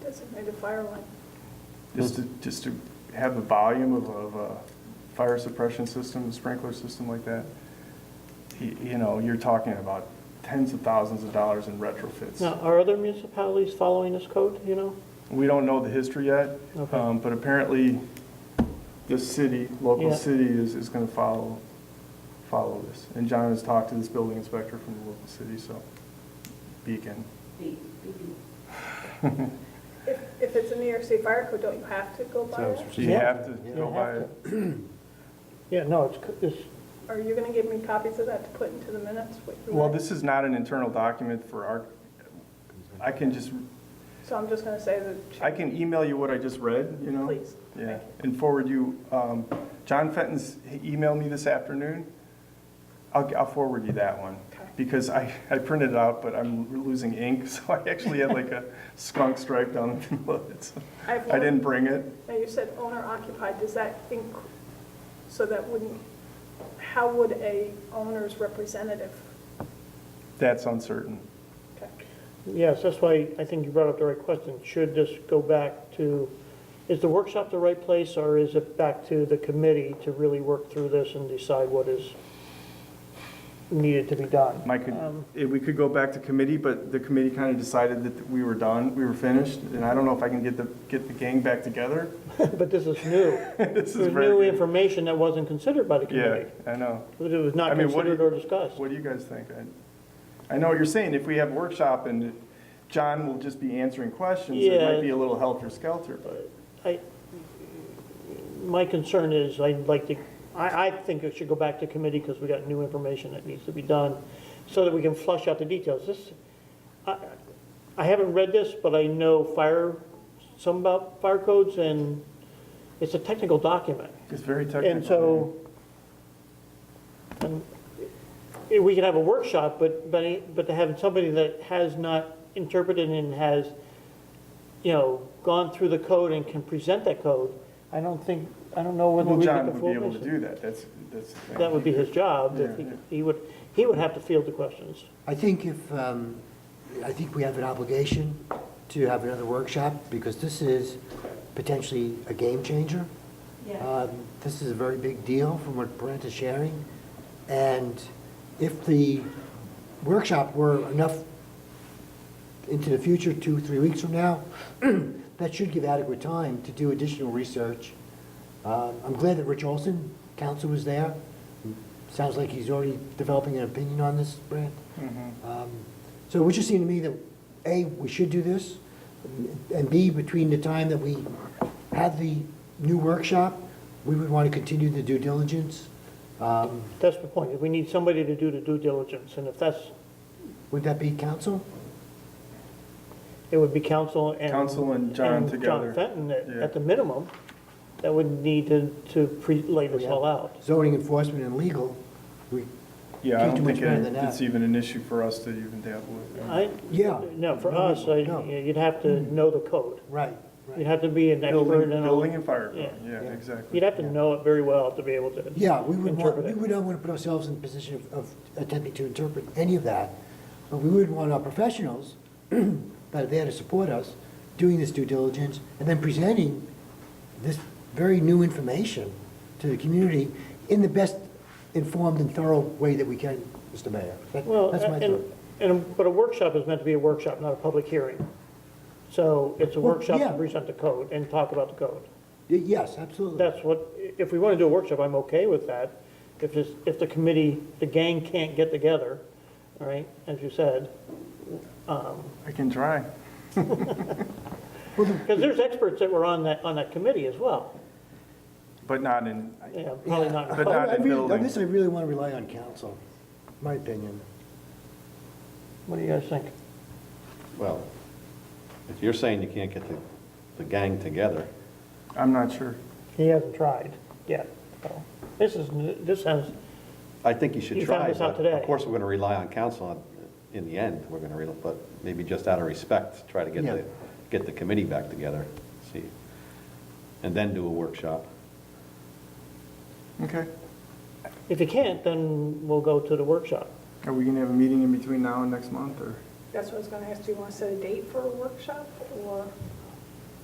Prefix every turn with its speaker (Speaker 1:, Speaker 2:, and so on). Speaker 1: kind of fire one.
Speaker 2: Just to, just to have the volume of, of a fire suppression system, sprinkler system like that, y- you know, you're talking about tens of thousands of dollars in
Speaker 3: Now,
Speaker 2: retrofits.
Speaker 3: are other municipalities following this code, you know?
Speaker 2: We don't know the history yet,
Speaker 3: Okay.
Speaker 2: um, but apparently this city, local
Speaker 3: Yeah.
Speaker 2: city is, is gonna follow, follow this. And John has talked to this building inspector from the local city, so Beacon.
Speaker 4: Be- be-
Speaker 1: If, if it's a New York State Fire Code, don't you have to go by it?
Speaker 2: So you
Speaker 3: Yeah.
Speaker 2: have to
Speaker 3: You
Speaker 2: go by
Speaker 3: have
Speaker 2: it.
Speaker 3: Yeah, no, it's, co- it's,
Speaker 1: Are you gonna give me copies of that to put into the minutes? what you
Speaker 2: Well,
Speaker 1: want?
Speaker 2: this is not an internal document for our, I can just
Speaker 1: So I'm just gonna say that.
Speaker 2: I can email you what I just read, you know?
Speaker 1: Please.
Speaker 2: Yeah,
Speaker 1: Thank you.
Speaker 2: and forward you, um, John Fenton's emailed me this afternoon. I'll, I'll forward you that one.
Speaker 1: Okay.
Speaker 2: Because I, I printed it out, but I'm losing ink, so I actually had like a skunk stripe down the middle of it. so
Speaker 1: I have
Speaker 2: I
Speaker 1: one-
Speaker 2: didn't bring it.
Speaker 1: Now, you said owner occupied, does that inc, so that wouldn't, how would a owner's representative?
Speaker 2: That's uncertain.
Speaker 1: Okay.
Speaker 3: yes, that's why I think you brought up the right question. Should this go back to, is the workshop the right place, or is it back to the committee to really work through this and decide what is needed to be done?
Speaker 2: Mike, could-
Speaker 1: Um,
Speaker 2: eh, we could go back to committee, but the committee kind of decided that we were done, we were finished. And I don't know if I can get the, get the gang back together.
Speaker 3: But this is new.
Speaker 2: This is
Speaker 3: There's new
Speaker 2: very,
Speaker 3: information that wasn't considered by the
Speaker 2: yeah,
Speaker 3: committee.
Speaker 2: I know.
Speaker 3: It was
Speaker 2: I
Speaker 3: not
Speaker 2: mean, what do
Speaker 3: considered or discussed.
Speaker 2: What do you guys think? I I know what you're saying, if we have workshop and John will just be answering questions, it might
Speaker 3: Yeah.
Speaker 2: be a little helter-skelter, but
Speaker 3: I, my concern is, I'd like to, I, I think it should go back to committee because we got new information that needs to be done, so that we can flush out the details. This, I, I haven't read this, but I know fire, some about fire codes, and it's a technical document.
Speaker 2: it's very technical.
Speaker 3: And so, um, eh, we could have a workshop, but, but, but to have somebody that has not interpreted and has, you know, gone through the code and can present that code, I don't think, I don't know whether
Speaker 2: Well,
Speaker 3: we get
Speaker 2: John
Speaker 3: the
Speaker 2: would be
Speaker 3: full
Speaker 2: able to
Speaker 3: picture.
Speaker 2: do that, that's, that's the thing.
Speaker 3: That would be his job, if he,
Speaker 2: Yeah.
Speaker 3: he would, he would have to field the questions.
Speaker 5: I think if, um, I think we have an obligation to have another workshop, because this is potentially a game changer.
Speaker 4: Yeah,
Speaker 5: Um, This is a very big deal from what Brent is sharing, and if the workshop were enough into the future, two, three weeks from now, that should give adequate time to do additional research. Um, I'm glad that Rich Olson, counsel, was there. Sounds like he's already developing an opinion on this, Brent. Um, So it would just seem to me that, A, we should do this, and B, between the time that we have the new workshop, we would want to continue the due diligence. Um,
Speaker 3: That's the point, we need somebody to do the due diligence, and if that's,
Speaker 5: Would that be council?
Speaker 3: it would be council and.
Speaker 2: Council and John together.
Speaker 3: Fenton, at,
Speaker 2: Yeah.
Speaker 3: at the minimum, that would need to, to pre, lay this all out.
Speaker 5: Zoning enforcement and legal, we,
Speaker 2: Yeah, I don't
Speaker 5: Can't do much
Speaker 2: think
Speaker 5: better than
Speaker 2: it-
Speaker 5: that.
Speaker 2: it's even an issue for us to even dabble with.
Speaker 3: I,
Speaker 5: Yeah.
Speaker 3: no, for us, I-
Speaker 5: No.
Speaker 3: you'd have to know the code.
Speaker 5: right,
Speaker 3: You'd
Speaker 5: right.
Speaker 3: have to be an expert
Speaker 2: Building,
Speaker 3: in
Speaker 2: building
Speaker 3: all.
Speaker 2: and fire, code.
Speaker 3: Yeah.
Speaker 2: yeah,
Speaker 5: Yeah.
Speaker 2: exactly.
Speaker 3: You'd have to know it very well to be able to.
Speaker 5: Yeah, we would want,
Speaker 3: interpret
Speaker 5: we
Speaker 3: it.
Speaker 5: would not want to put ourselves in the position of- of attempting to interpret any of that, but we would want our professionals that are there to support us, doing this due diligence, and then presenting this very new information to the community in the best informed and thorough way that we can, Mr. Mayor. That-
Speaker 3: Well,
Speaker 5: That's my
Speaker 3: and,
Speaker 5: thought.
Speaker 3: and, but a workshop is meant to be a workshop, not a public hearing. So it's a
Speaker 5: Well,
Speaker 3: workshop to
Speaker 5: yeah.
Speaker 3: present the code and talk about the code.
Speaker 5: Y- Yes, absolutely.
Speaker 3: That's what, if we want to do a workshop, I'm okay with that. If this, if the committee, the gang can't get together, all right, as you said,
Speaker 2: I can try.
Speaker 3: because there's experts that were on that, on that committee as well.
Speaker 2: But not in,
Speaker 3: Yeah, probably not.
Speaker 2: But not
Speaker 5: I- I
Speaker 2: in
Speaker 5: really-
Speaker 2: building.
Speaker 5: On this, I really want to rely on council, my opinion.
Speaker 3: What do you guys think?
Speaker 6: Well, if you're saying you can't get the, the gang together,
Speaker 2: I'm not sure.
Speaker 3: He hasn't tried yet, so, this is, n- this has,
Speaker 6: I think you should
Speaker 3: You
Speaker 6: try.
Speaker 3: found this out
Speaker 6: but
Speaker 3: today.
Speaker 6: Of course, we're going to rely on council on- in the end, we're going to, rely but maybe just out of respect, try to get
Speaker 5: Yeah.
Speaker 6: the, get the committee back together, see, and then do a workshop.
Speaker 2: Okay,
Speaker 3: if you can't, then we'll go to the workshop.
Speaker 2: are we gonna have a meeting in between now and next month, or?
Speaker 1: That's what I was gonna ask, do you wanna set a date for a workshop, or